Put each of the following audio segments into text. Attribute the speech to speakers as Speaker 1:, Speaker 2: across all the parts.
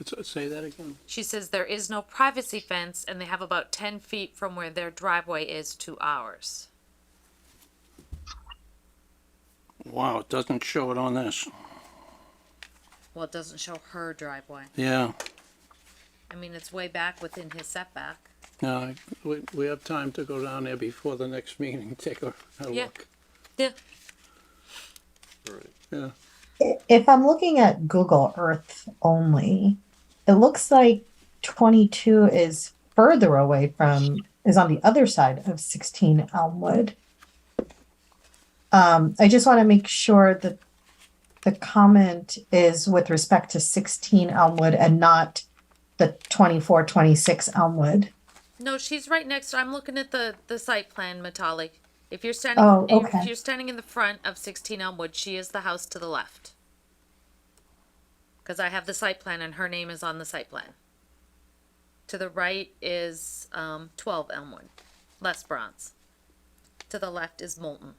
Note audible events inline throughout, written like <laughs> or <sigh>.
Speaker 1: It's- Say that again.
Speaker 2: She says there is no privacy fence and they have about ten feet from where their driveway is to ours.
Speaker 1: Wow, it doesn't show it on this.
Speaker 2: Well, it doesn't show her driveway.
Speaker 1: Yeah,
Speaker 2: I mean, it's way back within his setback.
Speaker 1: yeah, I- we, we have time to go down there before the next meeting, <laughs> take a, a
Speaker 2: Yeah.
Speaker 1: look.
Speaker 2: Yeah.
Speaker 1: Yeah,
Speaker 3: If I'm looking at Google Earth only, it looks like 22 is further away from, is on the other side of 16 Elmwood. Um, I just want to make sure that the comment is with respect to 16 Elmwood and not the 24, 26 Elmwood.
Speaker 2: No, she's right next. I'm looking at the the site plan, Matali. If you're standing,
Speaker 3: Oh,
Speaker 2: if-
Speaker 3: okay.
Speaker 2: if you're standing in the front of 16 Elmwood, she is the house to the left. Because I have the site plan and her name is on the site plan. To the right is um, 12 Elmwood, Les Bronze. To the left is Moulton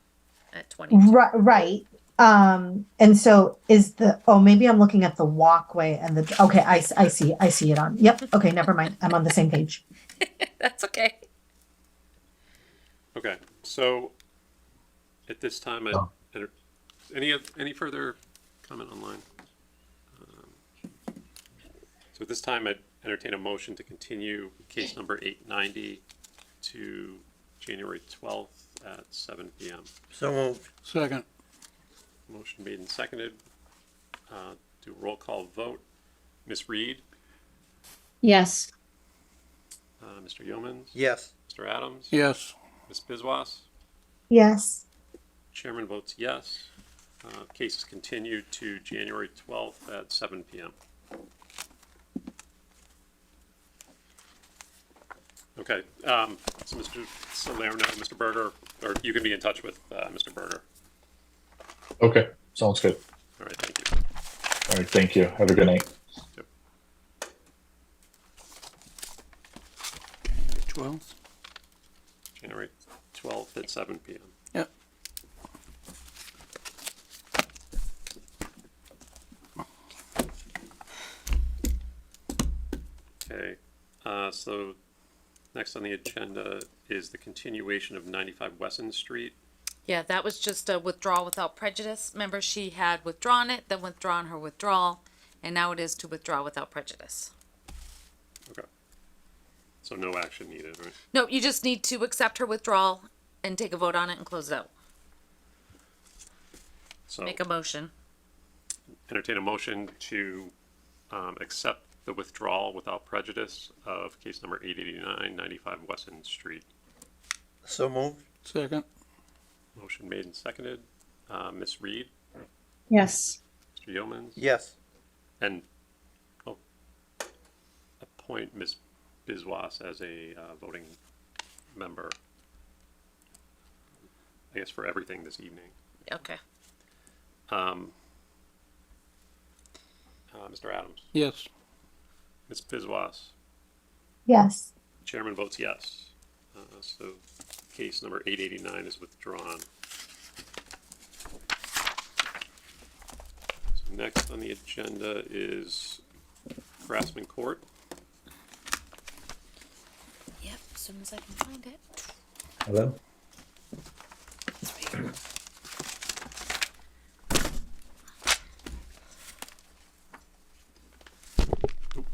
Speaker 2: at 20.
Speaker 3: Right, right. Um, and so is the, oh, maybe I'm looking at the walkway and the, okay, I, s- I see, I see it on. Yep. Okay, never mind. I'm on the same page.
Speaker 2: <laughs> That's okay.
Speaker 4: Okay, so at this time, I, enter- any, of- any further comment online? Um, So at this time, I entertain a motion to continue case number eight ninety to January twelfth at seven P M.
Speaker 5: So moved.
Speaker 1: second,
Speaker 4: Motion made and seconded. Uh, Do a roll call vote. Ms. Reed,
Speaker 6: Yes.
Speaker 4: uh, Mr. Yeomans,
Speaker 5: Yes.
Speaker 4: Mr. Adams,
Speaker 1: yes,
Speaker 4: Ms. Bizwas.
Speaker 3: Yes.
Speaker 4: Chairman votes yes. Uh, Case is continued to January 12th at seven PM. Okay, um, so Mr. Salerno, Mr. Berger, or you can be in touch with uh, Mr. Berger.
Speaker 7: Okay, sounds good.
Speaker 4: All right, thank you.
Speaker 7: All right, thank you. Have a good night.
Speaker 1: twelve,
Speaker 4: January 12th at seven PM.
Speaker 1: yeah.
Speaker 4: Okay, uh, so next on the agenda is the continuation of 95 Wesson Street.
Speaker 2: Yeah, that was just a withdrawal without prejudice. Remember, she had withdrawn it, then withdrawn her withdrawal, and now it is to withdraw without prejudice.
Speaker 4: Okay. So no action needed, right?
Speaker 2: No, you just need to accept her withdrawal and take a vote on it and close it out.
Speaker 4: So-
Speaker 2: Make a motion.
Speaker 4: entertain a motion to um, accept the withdrawal without prejudice of case number 889, 95 Wesson Street.
Speaker 5: So moved.
Speaker 1: Second,
Speaker 4: Motion made and seconded. Uh, Ms. Reed,
Speaker 6: Yes.
Speaker 4: Mr. Yeomans,
Speaker 5: Yes.
Speaker 4: and oh, appoint Ms. Biswas as a uh, voting member, I guess for everything this evening.
Speaker 2: Okay.
Speaker 4: Um, uh, Mr. Adams,
Speaker 1: yes,
Speaker 4: Ms. Biswas,
Speaker 3: Yes.
Speaker 4: Chairman votes yes. Uh, So case number 889 is withdrawn. So Next on the agenda is Grassman Court.
Speaker 2: Yep, as soon as I can find it.
Speaker 7: hello.
Speaker 4: Sorry.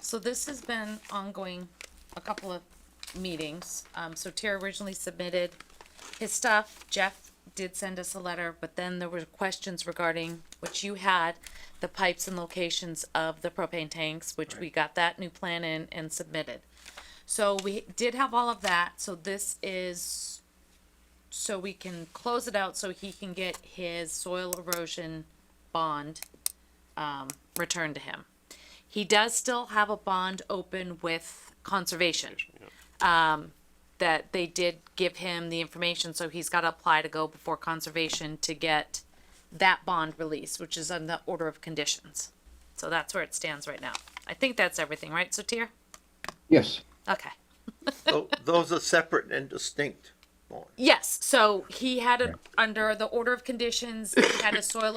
Speaker 2: So this has been ongoing a couple of meetings. Um, so Tara originally submitted his stuff. Jeff did send us a letter, but then there were questions regarding which you had, the pipes and locations of the propane tanks, which we got that new plan in and submitted. So we did have all of that. So this is so we can close it out so he can get his soil erosion bond um, returned to him. He does still have a bond open with conservation. Um, that they did give him the information, so he's gotta apply to go before conservation to get that bond released, which is on the order of conditions. So that's where it stands right now. I think that's everything, right, Sotir?
Speaker 8: Yes.
Speaker 2: Okay.
Speaker 5: Tho- Those are separate and distinct.
Speaker 2: Yes, so he had it under the order of conditions, he had a soil